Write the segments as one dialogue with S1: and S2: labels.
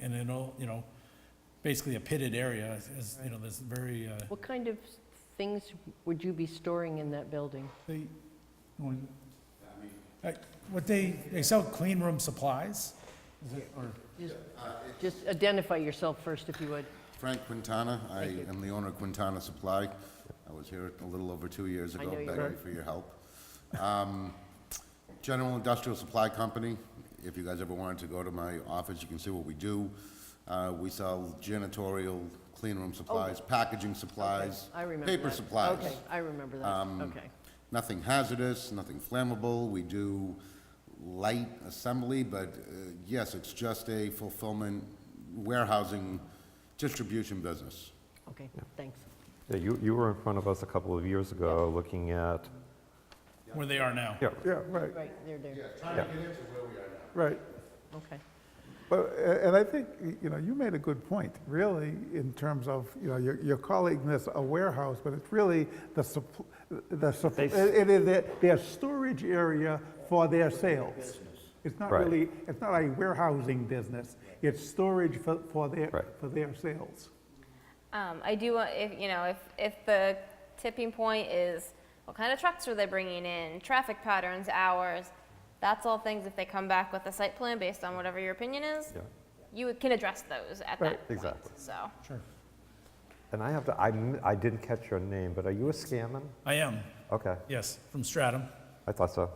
S1: and it'll, you know, basically a pitted area, is- is, you know, this very, uh,
S2: What kind of things would you be storing in that building?
S1: They, when- Uh, what they, they sell clean room supplies, is it, or,
S2: Just- Just identify yourself first, if you would.
S3: Frank Quintana, I am the owner of Quintana Supply. I was here a little over two years
S2: I
S3: ago,
S2: know you
S3: begging
S2: were.
S3: for your help. Um, General Industrial Supply Company, if you guys ever wanted to go to my office, you can see what we do. Uh, We sell janitorial, clean room supplies, packaging supplies.
S2: Oh. I remember
S3: Paper
S2: that.
S3: supplies. Um,
S2: Okay, I remember that, okay.
S3: Nothing hazardous, nothing flammable. We do light assembly, but uh, yes, it's just a fulfillment warehousing distribution business.
S2: Okay, thanks.
S4: Yeah, You, you were in front of us a couple of years ago, looking at,
S1: where they are now?
S4: yeah,
S5: Yeah, right,
S2: Right, there, there,
S5: right.
S2: okay.
S5: But, a- and I think, y- you know, you made a good point, really, in terms of, you know, you're you're calling this a warehouse, but it's really the, supp- the, supp-
S4: They s-
S5: it is their- their storage area for their sales. It's not
S4: Right.
S5: really, it's not a warehousing business, it's storage for, for their,
S4: Right.
S5: for their sales.
S6: Um, I do want, if, you know, if, if the tipping point is what kind of trucks are they bringing in, traffic patterns, hours, that's all things if they come back with a site plan based on whatever your opinion is,
S4: yeah.
S6: you can address those at that
S5: Right,
S6: point.
S4: exactly.
S6: So,
S1: Sure.
S4: And I have to, I, m- I didn't catch your name, but are you a scammon?
S1: I am,
S4: Okay,
S1: yes, from Stratham.
S4: I thought so.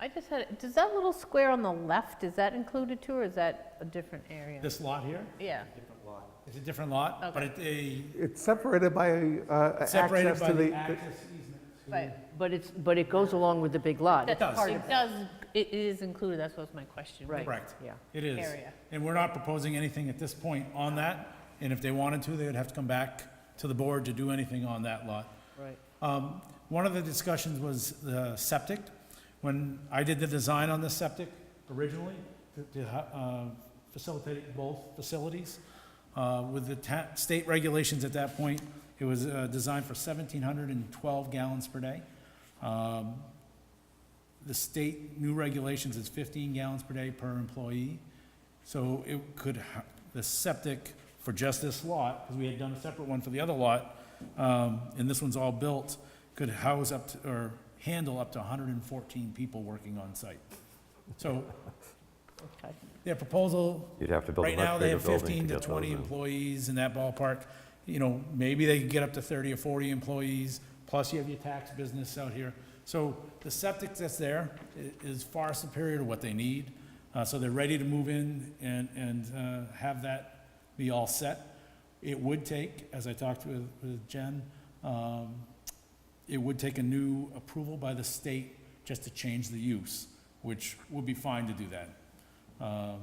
S7: I just had, does that little square on the left, is that included too, or is that a different area?
S1: This lot here,
S7: Yeah,
S1: it's a different lot, but it, a,
S5: It's separated by uh, access
S1: separated by
S5: to
S1: the
S5: the,
S1: access easement.
S7: right.
S2: But it's, but it goes along with the big lot.
S1: does.
S2: It's part of
S7: It does, it is included, that's what's my question.
S2: Right.
S1: Correct.
S2: Yeah.
S1: It is.
S7: Area.
S1: And we're not proposing anything at this point on that, and if they wanted to, they would have to come back to the board to do anything on that lot.
S2: Right.
S1: Um, One of the discussions was the septic. When I did the design on the septic originally, to- to uh, facilitate both facilities, uh, with the ta- state regulations at that point, it was uh, designed for 1,712 gallons per day. Um, The state new regulations is 15 gallons per day per employee. So it could, ha- the septic for just this lot, because we had done a separate one for the other lot, um, and this one's all built, could house up, to- or handle up to 114 people working on site. So
S2: Okay.
S1: their proposal,
S4: You'd have to build a
S1: right now,
S4: much
S1: they
S4: bigger
S1: have 15
S4: building to
S1: to
S4: get
S1: 20
S4: those in.
S1: employees in that ballpark. You know, maybe they could get up to 30 or 40 employees, plus you have your tax business out here. So the septic that's there i- is far superior to what they need. Uh, So they're ready to move in and, and uh, have that be all set. It would take, as I talked with, with Jen, um, it would take a new approval by the state just to change the use, which would be fine to do that, um,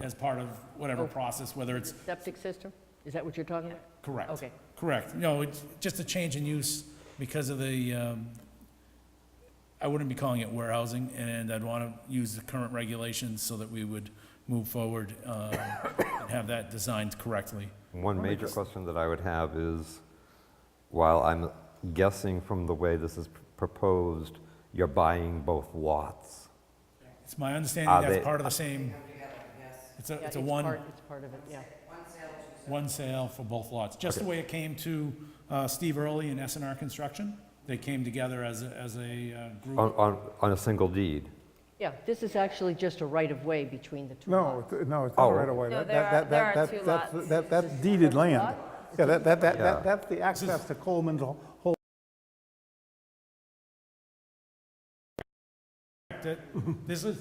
S1: as part of
S2: Oh.
S1: whatever process, whether it's
S2: Septic system, is that what you're talking about?
S1: correct.
S2: Okay.
S1: Correct. No, it's just a change in use because of the, um, I wouldn't be calling it warehousing, and I'd want to use the current regulations so that we would move forward uh, and have that designed correctly.
S4: One major question that I would have is, while I'm guessing from the way this is p- proposed, you're buying both lots.
S1: It's my understanding
S4: Are
S1: that's
S4: they-
S1: part of the same, it's a,
S2: Yeah,
S1: it's a one.
S2: part- It's part of it, yeah.
S1: One sale for both lots, just the way it came to uh, Steve Early and SNR Construction. They came together as, a- as a uh,
S4: On,
S1: group.
S4: on, on a single deed?
S2: Yeah, this is actually just a right-of-way between the two
S5: no,
S2: lots.
S5: it's- no, it's not
S4: Oh.
S5: right away.
S6: No,
S5: That-
S6: there
S5: that-
S6: are-
S5: that-
S6: there are
S5: that-
S6: two
S5: that's-
S6: lots.
S5: that- That's deeded land. Yeah, that, that, that,
S4: Yeah.
S5: that- that's the access to Coleman's whole
S1: That- This is,